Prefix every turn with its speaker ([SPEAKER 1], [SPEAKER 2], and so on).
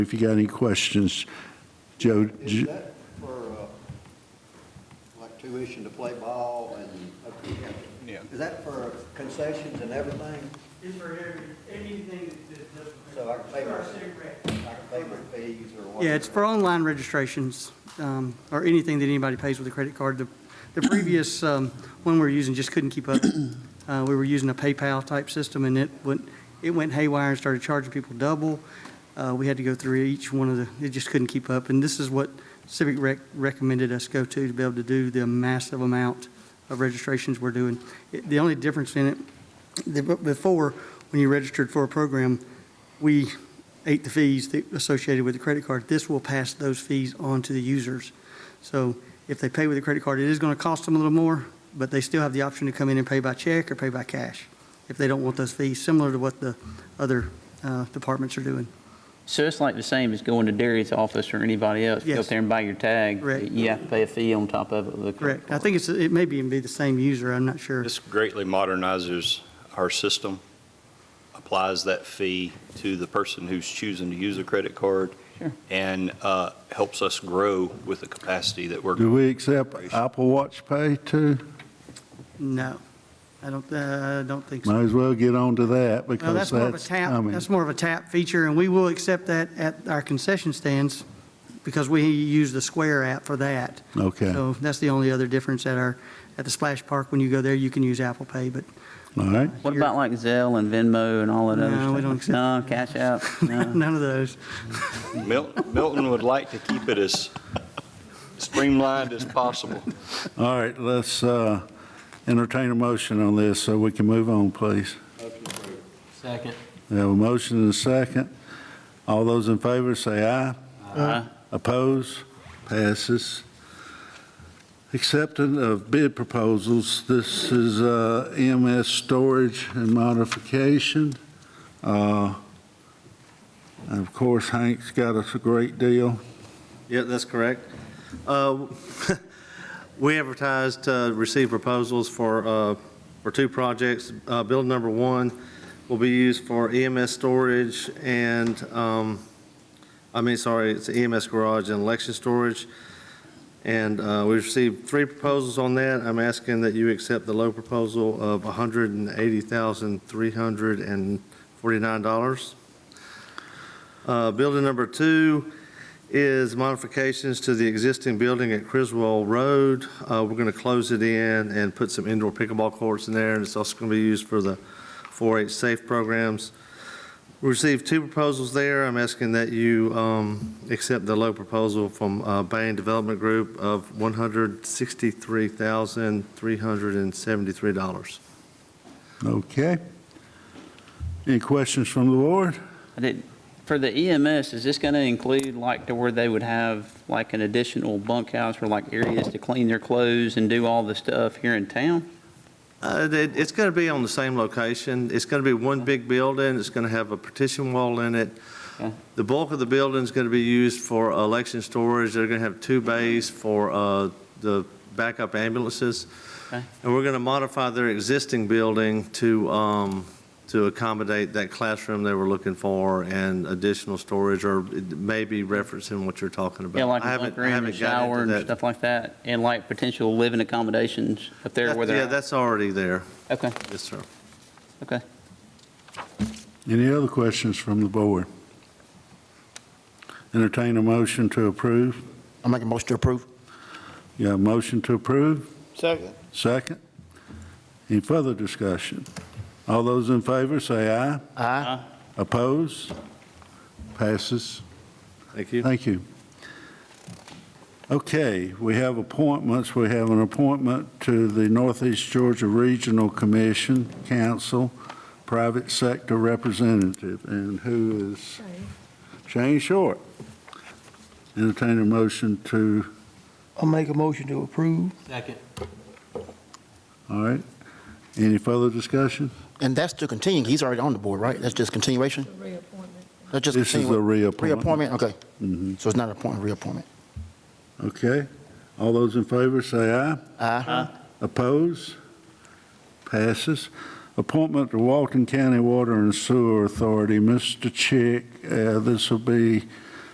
[SPEAKER 1] If you got any questions, Joe,
[SPEAKER 2] Is
[SPEAKER 1] j-
[SPEAKER 2] that for, uh, like tuition to play ball and,
[SPEAKER 3] Yeah.
[SPEAKER 2] is that for concessions and everything?
[SPEAKER 4] It's for every, anything that- that doesn't.
[SPEAKER 2] So I can pay my-
[SPEAKER 4] Or cigarette.
[SPEAKER 2] Like payment fees or what?
[SPEAKER 4] Yeah, it's for online registrations, um, or anything that anybody pays with a credit card. The the previous um, one we were using just couldn't keep up. Uh, We were using a PayPal-type system, and it went, it went haywire and started charging people double. Uh, We had to go through each one of the, it just couldn't keep up. And this is what Civic Rec recommended us go to, to be able to do the massive amount of registrations we're doing. It- The only difference in it, the- but before, when you registered for a program, we ate the fees that- associated with the credit card. This will pass those fees on to the users. So if they pay with a credit card, it is going to cost them a little more, but they still have the option to come in and pay by check or pay by cash if they don't want those fees, similar to what the other uh, departments are doing.
[SPEAKER 5] So it's like the same as going to Darius' office or anybody else, go
[SPEAKER 4] Yes.
[SPEAKER 5] up there and buy your tag.
[SPEAKER 4] Correct.
[SPEAKER 5] You have to pay a fee on top of it. with a credit
[SPEAKER 4] Correct. I
[SPEAKER 5] card.
[SPEAKER 4] think it's, it may be even be the same user, I'm not sure.
[SPEAKER 3] This greatly modernizes our system, applies that fee to the person who's choosing to use a credit card,
[SPEAKER 5] Sure.
[SPEAKER 3] and uh, helps us grow with the capacity that we're.
[SPEAKER 1] do we accept Apple Watch Pay too?
[SPEAKER 4] No, I don't, uh, I don't think so.
[SPEAKER 1] Might as well get on to that
[SPEAKER 4] No,
[SPEAKER 1] because
[SPEAKER 4] that's more of a
[SPEAKER 1] that's
[SPEAKER 4] tap,
[SPEAKER 1] coming.
[SPEAKER 4] that's more of a tap feature, and we will accept that at our concession stands because we use the Square app for that.
[SPEAKER 1] Okay, all
[SPEAKER 4] So that's the only other difference at our, at the Splash Park, when you go there, you can use Apple Pay, but
[SPEAKER 1] right.
[SPEAKER 5] What about like Zelle and Venmo and all that other stuff?
[SPEAKER 4] No, we don't accept-
[SPEAKER 5] No, Cash App, no.
[SPEAKER 4] none of those.
[SPEAKER 3] Mil- Milton would like to keep it as streamlined as possible.
[SPEAKER 1] All right, let's uh, entertain a motion on this so we can move on, please.
[SPEAKER 2] Motion approved.
[SPEAKER 6] Second.
[SPEAKER 1] We have a motion and a second. All those in favor say aye.
[SPEAKER 5] Aye.
[SPEAKER 1] Oppose? Passes. Acceptance of bid proposals. This is uh, EMS storage and modification. Uh, and Of course, Hank's got us a great deal.
[SPEAKER 7] Yeah, that's correct. Uh, We advertised, uh, received proposals for, uh, for two projects. Uh, Build number one will be used for EMS storage and, um, I mean, sorry, it's EMS garage and election storage. And uh, we received three proposals on that. I'm asking that you accept the low proposal of $180,349. Uh, Building number two is modifications to the existing building at Criswell Road. Uh, We're going to close it in and put some indoor pickleball courts in there, and it's also going to be used for the 4-H safe programs. We received two proposals there. I'm asking that you um, accept the low proposal from uh, Bain Development Group of $163,373.
[SPEAKER 1] Okay. Any questions from the board?
[SPEAKER 5] I did- For the EMS, is this going to include like to where they would have like an additional bunkhouse or like areas to clean their clothes and do all the stuff here in town?
[SPEAKER 7] Uh, it- It's going to be on the same location. It's going to be one big building. It's going to have a partition wall in it.
[SPEAKER 5] Okay.
[SPEAKER 7] The bulk of the building's going to be used for election storage. They're going to have two bays for uh, the backup ambulances.
[SPEAKER 5] Okay.
[SPEAKER 7] And we're going to modify their existing building to, um, to accommodate that classroom they were looking for and additional storage, or maybe referencing what you're talking about.
[SPEAKER 5] Yeah, like
[SPEAKER 7] I
[SPEAKER 5] a
[SPEAKER 7] haven't-
[SPEAKER 5] bunk
[SPEAKER 7] I
[SPEAKER 5] room, a
[SPEAKER 7] haven't gotten into
[SPEAKER 5] shower and
[SPEAKER 7] that.
[SPEAKER 5] stuff like that? And like potential living accommodations up there where
[SPEAKER 7] That-
[SPEAKER 5] they're
[SPEAKER 7] Yeah,
[SPEAKER 5] at?
[SPEAKER 7] that's already there.
[SPEAKER 5] Okay,
[SPEAKER 7] Yes, sir.
[SPEAKER 5] okay.
[SPEAKER 1] Any other questions from the board? Entertain a motion to approve.
[SPEAKER 6] I'll make a motion to approve.
[SPEAKER 1] You have a motion to approve?
[SPEAKER 3] Second.
[SPEAKER 1] Second. Any further discussion? All those in favor say aye.
[SPEAKER 6] Aye.
[SPEAKER 1] Oppose? Passes.
[SPEAKER 7] Thank you.
[SPEAKER 1] Thank you. Okay, we have appointments. We have an appointment to the Northeast Georgia Regional Commission, Council, Private Sector Representative, and who is? Shane Short. Entertain a motion to,
[SPEAKER 8] I'll make a motion to approve.
[SPEAKER 6] Second.
[SPEAKER 1] all right. Any further discussion?
[SPEAKER 6] And that's to continue, he's already on the board, right? That's just continuation?
[SPEAKER 9] reappointment.
[SPEAKER 6] That's just
[SPEAKER 1] This is a
[SPEAKER 6] continue.
[SPEAKER 1] reappointment.
[SPEAKER 6] Reappointment, okay.
[SPEAKER 1] Mhm.
[SPEAKER 6] So it's not appointment, reappointment.
[SPEAKER 1] Okay. All those in favor say aye.
[SPEAKER 6] Aye.
[SPEAKER 1] Oppose? Passes. Appointment to Walton County Water and Sewer Authority, Mr. Chick, uh, this will be